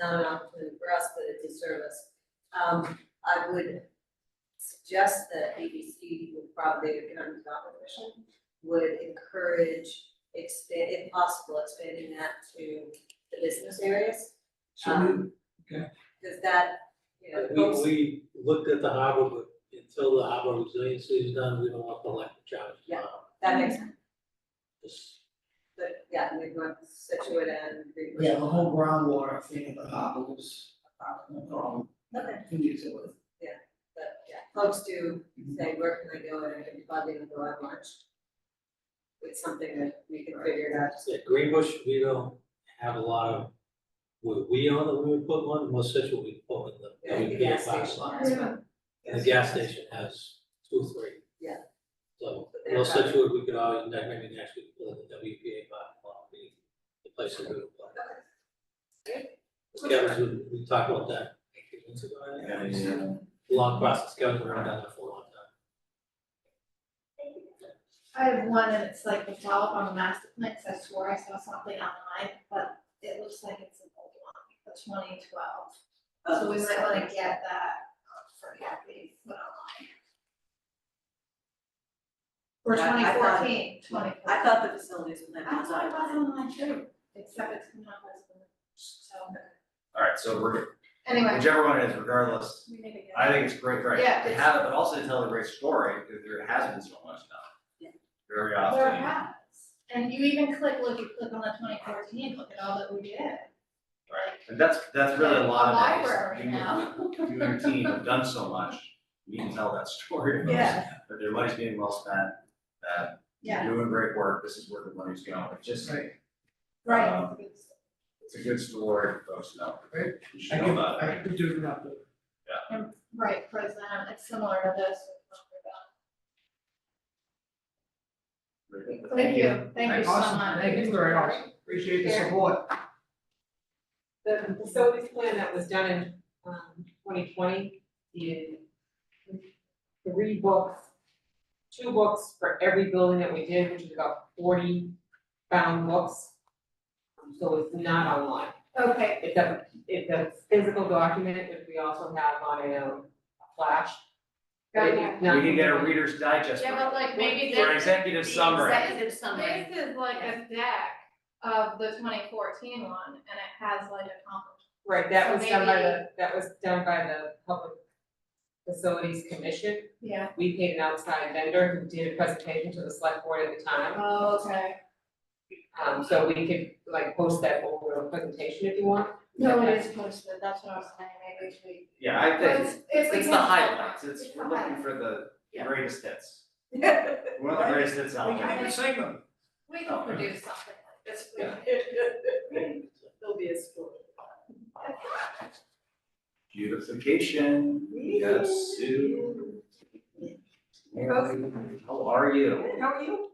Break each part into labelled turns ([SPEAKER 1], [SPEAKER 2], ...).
[SPEAKER 1] not an opportunity for us, but a disservice. Um, I would suggest that BBC would probably, economic development commission, would encourage expand, if possible, expanding that to the business areas.
[SPEAKER 2] Um,
[SPEAKER 1] Um,
[SPEAKER 3] So we- okay.
[SPEAKER 1] Cause that, you know,
[SPEAKER 4] We,
[SPEAKER 1] folks-
[SPEAKER 4] we looked at the harbor, but until the harbor resiliency is done, we don't want to let the charge.
[SPEAKER 1] Yeah. that makes sense,
[SPEAKER 4] This-
[SPEAKER 1] but yeah, we've got Situate and. Greenbush.
[SPEAKER 3] Yeah, the whole groundwater thing at the harbor was a problem.
[SPEAKER 1] Okay.
[SPEAKER 3] Can use it with.
[SPEAKER 1] But yeah, folks do say, where can I go and I can probably go on lunch. It's something that we can figure it out.
[SPEAKER 4] Yeah, Greenbush, we don't have a lot of, were we on it when we put one, most such what we put in the,
[SPEAKER 1] Yeah,
[SPEAKER 4] we
[SPEAKER 1] the
[SPEAKER 4] gave
[SPEAKER 1] gas
[SPEAKER 4] last
[SPEAKER 1] station
[SPEAKER 4] lot.
[SPEAKER 1] has one.
[SPEAKER 4] And the gas station has two, three.
[SPEAKER 1] Yeah.
[SPEAKER 4] So,
[SPEAKER 1] But they're
[SPEAKER 4] most such what we could always, that maybe next week, pull in the WPA by, well, be the place to do it. but Kevin's, we, we talked about that a few months ago, I think. long process, Kevin's been around that for a long time.
[SPEAKER 5] I have one and it's like the follow-up on the master plan, 'cause I swore I saw something online, but it looks like it's an old one, the twenty twelve. So we might wanna get that um, for Kathy, put online. Or
[SPEAKER 1] Yeah, I
[SPEAKER 5] twenty
[SPEAKER 1] thought-
[SPEAKER 5] fourteen, twenty.
[SPEAKER 1] I thought the facilities would have.
[SPEAKER 5] I thought it was online too, except it's not listed, so,
[SPEAKER 6] Alright, so we're,
[SPEAKER 5] anyway,
[SPEAKER 6] whichever one it is, regardless,
[SPEAKER 5] we need to get.
[SPEAKER 6] I think it's great, right,
[SPEAKER 5] Yeah,
[SPEAKER 6] to
[SPEAKER 5] it's-
[SPEAKER 6] have it, but also to tell a great story, because there has been so much done.
[SPEAKER 1] Yeah.
[SPEAKER 6] Very
[SPEAKER 5] There
[SPEAKER 6] often,
[SPEAKER 5] has, and you even click, look, you click on the twenty fourteen, look at all that we did. Right.
[SPEAKER 6] and that's, that's really a lot of it, is
[SPEAKER 5] Um, Library
[SPEAKER 6] you-
[SPEAKER 5] now.
[SPEAKER 6] you, and your team have done so much, you can tell that story. of those,
[SPEAKER 5] Yeah.
[SPEAKER 6] That their money's being well spent, that you're
[SPEAKER 5] Yeah.
[SPEAKER 6] doing great work, this is where the money's going, it's just,
[SPEAKER 5] Right.
[SPEAKER 6] Um, it's a good story, for folks, to know.
[SPEAKER 3] Right. I
[SPEAKER 6] You should know
[SPEAKER 3] could,
[SPEAKER 6] about it.
[SPEAKER 3] I could do it up.
[SPEAKER 5] And, right, present, it's similar to this. Thank you, thank you so
[SPEAKER 3] Awesome.
[SPEAKER 5] much.
[SPEAKER 3] Thank you very much. Appreciate the
[SPEAKER 7] Sure.
[SPEAKER 3] support.
[SPEAKER 7] The facilities plan that was done in, um, twenty twenty, did three books, two books for every building that we did, which is about forty bound books. Um, So it's not online,
[SPEAKER 5] Okay,
[SPEAKER 7] it's a, it's a physical document, which we also have on a um, flash.
[SPEAKER 5] got
[SPEAKER 7] It is
[SPEAKER 5] it.
[SPEAKER 6] We
[SPEAKER 7] not-
[SPEAKER 6] can get a Reader's Digest
[SPEAKER 5] Yeah,
[SPEAKER 6] for
[SPEAKER 5] but like maybe
[SPEAKER 6] for an
[SPEAKER 5] this,
[SPEAKER 6] executive summary.
[SPEAKER 5] this is like a deck of the twenty fourteen one, and it has like a comp.
[SPEAKER 7] Right, that was
[SPEAKER 5] So
[SPEAKER 7] done by
[SPEAKER 5] maybe-
[SPEAKER 7] the, that was done by the Public Facilities Commission.
[SPEAKER 5] Yeah.
[SPEAKER 7] We paid an outside vendor who did a presentation to the select board at the time.
[SPEAKER 5] Oh, okay.
[SPEAKER 7] Um, so we could like post that over a presentation if you want.
[SPEAKER 5] No, it is posted, that's what I was saying, maybe we.
[SPEAKER 6] Yeah, I
[SPEAKER 5] But
[SPEAKER 6] think,
[SPEAKER 5] It's, it's. we
[SPEAKER 6] it's the
[SPEAKER 5] can-
[SPEAKER 6] highlights, it's,
[SPEAKER 5] the
[SPEAKER 6] we're looking
[SPEAKER 5] highlights.
[SPEAKER 6] for the
[SPEAKER 5] Yeah.
[SPEAKER 6] greatest hits.
[SPEAKER 1] Yeah.
[SPEAKER 6] One of the greatest hits out
[SPEAKER 5] can
[SPEAKER 6] there.
[SPEAKER 5] even
[SPEAKER 3] sing them.
[SPEAKER 5] We can produce something like this. We-
[SPEAKER 6] Yeah.
[SPEAKER 1] There'll be a school.
[SPEAKER 6] Beautification, we got Sue. How are you?
[SPEAKER 1] How are you?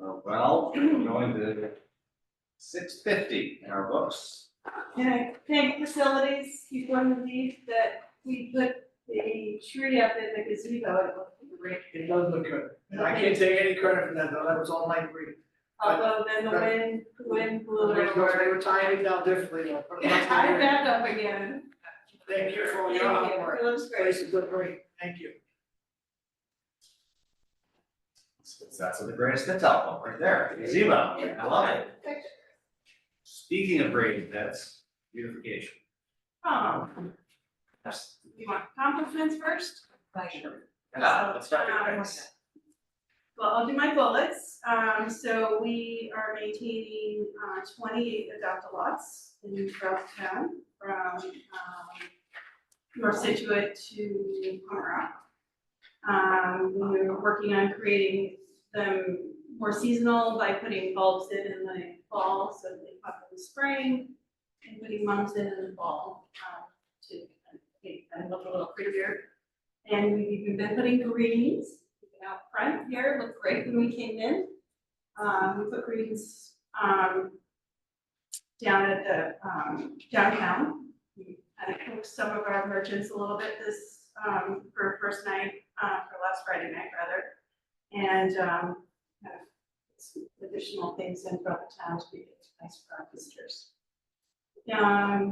[SPEAKER 6] Uh, Well, we're going to six fifty in our books.
[SPEAKER 2] And I thank facilities, he's going to leave that we put the tree up in the gazebo, it looked great.
[SPEAKER 3] It does look good. And I can't take any credit for that, though. That was all my grief.
[SPEAKER 2] Although then the wind, the wind blew it
[SPEAKER 3] They were- they
[SPEAKER 2] over.
[SPEAKER 3] were tying it down differently. though.
[SPEAKER 2] I'm back up again.
[SPEAKER 3] Thank you for all
[SPEAKER 2] Thank
[SPEAKER 3] your hard
[SPEAKER 2] you,
[SPEAKER 3] work.
[SPEAKER 2] it looks great.
[SPEAKER 3] Places look great. Thank you.
[SPEAKER 6] That's the greatest hits album right there, Zemo, I love it. Speaking of greatest hits, beautification.
[SPEAKER 2] Oh, you want compliments first?
[SPEAKER 6] Yeah, let's start with
[SPEAKER 2] Um,
[SPEAKER 6] greatest.
[SPEAKER 2] Well, I'll do my bullets. Um, so we are maintaining, uh, twenty-eight adopt-a-lots in throughout the town from, um, North Situate to Pomeroy. Um, we're working on creating them more seasonal by putting bulbs in in the fall, so they pop in the spring, and putting mums in in the fall, um, to make them look a little prettier. And we've even been putting greens out front here, looked great when we came in. Um, we put greens, um, down at the, um, downtown. We kind of hooked some of our merchants a little bit this, um, for first night, uh, for last Friday night rather. And, um, kind of some additional things in throughout the town to be nice for our visitors. um,